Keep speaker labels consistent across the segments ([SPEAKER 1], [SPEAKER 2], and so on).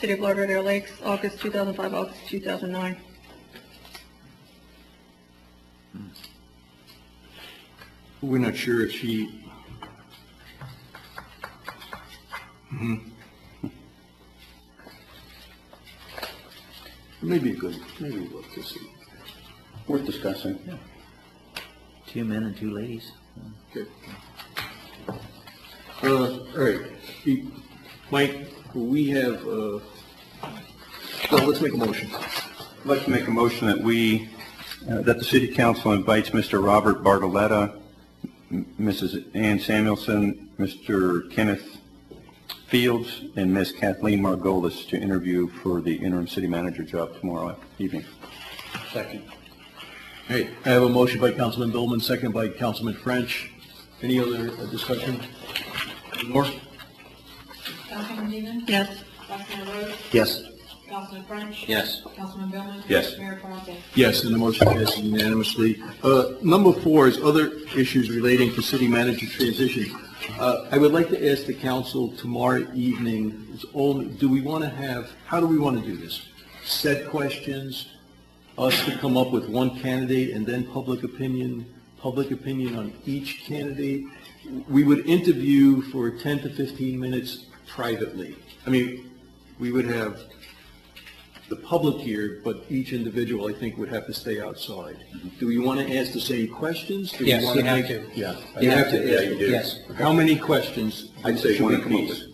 [SPEAKER 1] City of Lauderdale Lakes, August 2005, August 2009.
[SPEAKER 2] We're not sure if she, mm-hmm. maybe good, maybe look to see. Worth discussing.
[SPEAKER 3] Two men and two ladies.
[SPEAKER 2] Good. Uh, all right, E- Mike, we have, uh, well, let's make a motion.
[SPEAKER 4] I'd like to make a motion that we, uh, that the city council invites Mr. Robert Bartoletta, m- Mrs. Ann Samuelson, Mr. Kenneth Fields, and Ms. Kathleen Margolis to interview for the interim city manager job tomorrow evening.
[SPEAKER 2] Second. Hey, I have a motion by Councilman Billman, second by Councilman French. Any other uh, discussion? Lenore?
[SPEAKER 5] Councilman Dean?
[SPEAKER 1] Yes.
[SPEAKER 5] Councilman Rhodes?
[SPEAKER 3] Yes.
[SPEAKER 5] Councilman French?
[SPEAKER 3] Yes.
[SPEAKER 5] Councilman Billman?
[SPEAKER 4] Yes.
[SPEAKER 5] Mayor Parker?
[SPEAKER 2] Yes, and the motion passes unanimously. Uh, Number four is other issues relating to city manager transition. Uh, I would like to ask the council tomorrow evening, is all- do we want to have, how do we want to do this? Set questions, us to come up with one candidate, and then public opinion, public opinion on each candidate? We would interview for 10 to 15 minutes privately. I mean, we would have the public here, but each individual, I think, would have to stay outside. Do we want to ask the same questions? Do we
[SPEAKER 3] Yes,
[SPEAKER 2] wanna
[SPEAKER 3] you have
[SPEAKER 2] make-
[SPEAKER 3] to.
[SPEAKER 2] Yeah.
[SPEAKER 3] You
[SPEAKER 2] You
[SPEAKER 3] have
[SPEAKER 2] have
[SPEAKER 3] to,
[SPEAKER 2] to ask.
[SPEAKER 3] yeah, you do. Yes.
[SPEAKER 2] How many questions?
[SPEAKER 4] I'd say
[SPEAKER 2] should
[SPEAKER 4] one
[SPEAKER 2] we come up
[SPEAKER 4] apiece.
[SPEAKER 2] with?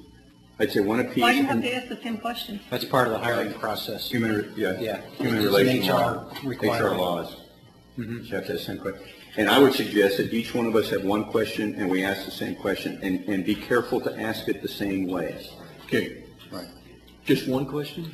[SPEAKER 4] I'd say one apiece.
[SPEAKER 1] Why do you have
[SPEAKER 4] and
[SPEAKER 1] to ask the same question?
[SPEAKER 3] That's part of the hiring process.
[SPEAKER 4] Human, re- yeah.
[SPEAKER 3] Yeah.
[SPEAKER 4] Human
[SPEAKER 3] It's an
[SPEAKER 4] relations
[SPEAKER 3] HR
[SPEAKER 4] law. HR
[SPEAKER 3] requirement. Mm-hmm.
[SPEAKER 4] laws. You have to ask the same question. And I would suggest that each one of us have one question, and we ask the same question, and, and be careful to ask it the same way.
[SPEAKER 2] Okay.
[SPEAKER 4] Right.
[SPEAKER 2] Just one question?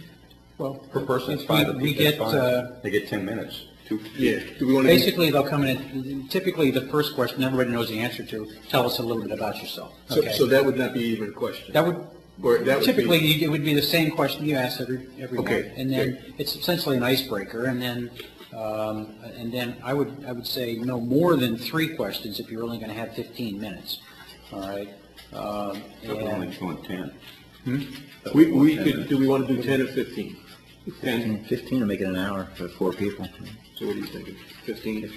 [SPEAKER 3] Well,
[SPEAKER 4] Per person, it's
[SPEAKER 3] we-
[SPEAKER 4] five
[SPEAKER 3] We
[SPEAKER 4] apiece, that's
[SPEAKER 3] get, uh,
[SPEAKER 4] fine. They get 10 minutes. Two-
[SPEAKER 2] Do we want to?
[SPEAKER 3] basically, they'll come in, and typically, the first question everybody knows the answer to, tell us a little bit about yourself.
[SPEAKER 2] So,
[SPEAKER 3] Okay.
[SPEAKER 2] so that would not be even a question?
[SPEAKER 3] That would,
[SPEAKER 2] Or that would be-
[SPEAKER 3] typically, you- it would be the same question you ask every, everyone.
[SPEAKER 2] Okay,
[SPEAKER 3] And then, it's essentially an icebreaker, and then, um, and then I would, I would say no more than three questions if you're only going to have 15 minutes, all right? Um,
[SPEAKER 4] That was
[SPEAKER 3] and-
[SPEAKER 4] only two and 10. That
[SPEAKER 2] We,
[SPEAKER 4] was
[SPEAKER 2] we
[SPEAKER 4] 10
[SPEAKER 2] could,
[SPEAKER 4] minutes.
[SPEAKER 2] do we want to do ten or fifteen? Ten,
[SPEAKER 3] Fifteen to make it an hour for four people.
[SPEAKER 2] so what are you thinking? Fifteen?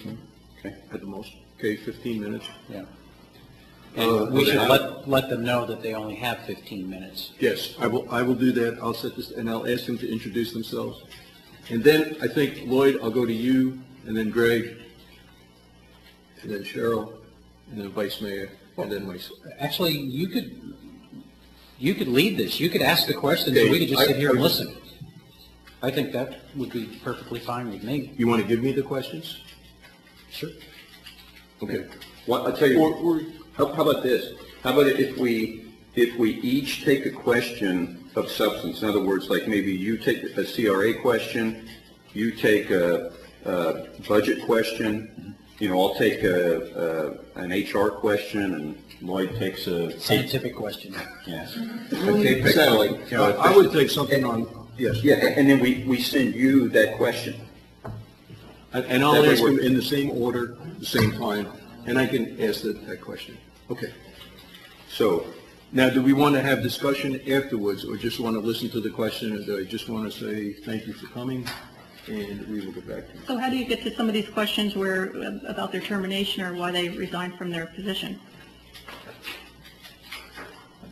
[SPEAKER 2] Okay, at the most. Okay, fifteen minutes.
[SPEAKER 3] Yeah.
[SPEAKER 2] Uh,
[SPEAKER 3] And we
[SPEAKER 2] okay.
[SPEAKER 3] should let, let them know that they only have fifteen minutes.
[SPEAKER 2] Yes, I will, I will do that. I'll set this, and I'll ask them to introduce themselves. And then I think Lloyd, I'll go to you, and then Greg, and then Cheryl, and then Vice Mayor, and then myself.
[SPEAKER 3] Actually, you could, you could lead this. You could ask the questions, and we could just sit here and listen. I think that would be perfectly fine with me.
[SPEAKER 2] You want to give me the questions?
[SPEAKER 3] Sure.
[SPEAKER 2] Okay.
[SPEAKER 4] Well, I'll tell you,
[SPEAKER 2] Or- or-
[SPEAKER 4] how, how about this? How about if we, if we each take a question of substance? In other words, like maybe you take a CRA question, you take a, a budget question, you know, I'll take a, a, an HR question, and Lloyd takes a.
[SPEAKER 3] Scientific question.
[SPEAKER 4] Yes. Okay, pick, so like, you know,
[SPEAKER 2] I would take something on, yes,
[SPEAKER 4] Yeah, and then we, we send you that question.
[SPEAKER 2] and- and I'll
[SPEAKER 4] That
[SPEAKER 2] ask
[SPEAKER 4] would
[SPEAKER 2] them
[SPEAKER 4] work.
[SPEAKER 2] in the same order, the same time, and I can ask that, that question. Okay.
[SPEAKER 4] So,
[SPEAKER 2] Now, do we want to have discussion afterwards, or just want to listen to the question, or do I just want to say, thank you for coming, and we will get back to you?
[SPEAKER 1] So how do you get to some of these questions where, uh, about their termination or why they resigned from their position?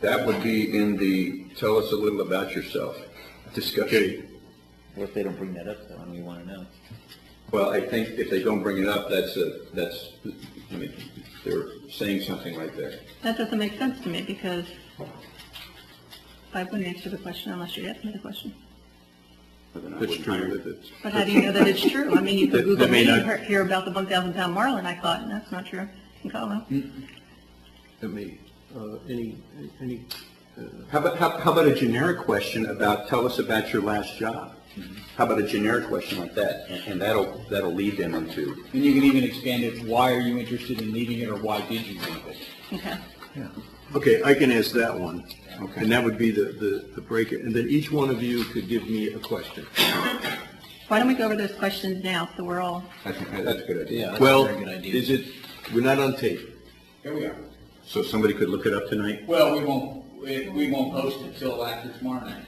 [SPEAKER 4] That would be in the, tell us a little about yourself discussion.
[SPEAKER 3] What if they don't bring that up, though, and we want to know?
[SPEAKER 4] Well, I think if they don't bring it up, that's a, that's, I mean, they're saying something right there.
[SPEAKER 1] That doesn't make sense to me because I wouldn't answer the question unless you asked me the question.
[SPEAKER 4] That's true.
[SPEAKER 1] But how do you know that it's true? I mean, you could Google
[SPEAKER 4] That may
[SPEAKER 1] me and
[SPEAKER 4] not-
[SPEAKER 1] hear- hear about the 1,000 pound marlin, I thought, and that's not true. You can call them.
[SPEAKER 2] Let me, uh, any, any,
[SPEAKER 4] How about, how how about a generic question about, tell us about your last job? How about a generic question like that? And and that'll, that'll lead them into,
[SPEAKER 6] And you can even expand it, why are you interested in leaving it, or why did you leave it?
[SPEAKER 4] Mm.
[SPEAKER 1] Okay.
[SPEAKER 2] okay, I can ask that one.
[SPEAKER 4] Okay.
[SPEAKER 2] And that would be the, the, the break, and then each one of you could give me a question.
[SPEAKER 1] Why don't we go over those questions now so we're all,
[SPEAKER 4] I think that's a good idea.
[SPEAKER 3] Yeah, that's a
[SPEAKER 2] Well,
[SPEAKER 3] very good idea.
[SPEAKER 2] is it, we're not on tape.
[SPEAKER 6] Here we are.
[SPEAKER 4] So somebody could look it up tonight?
[SPEAKER 6] Well, we won't, we- we won't post it till after tomorrow night.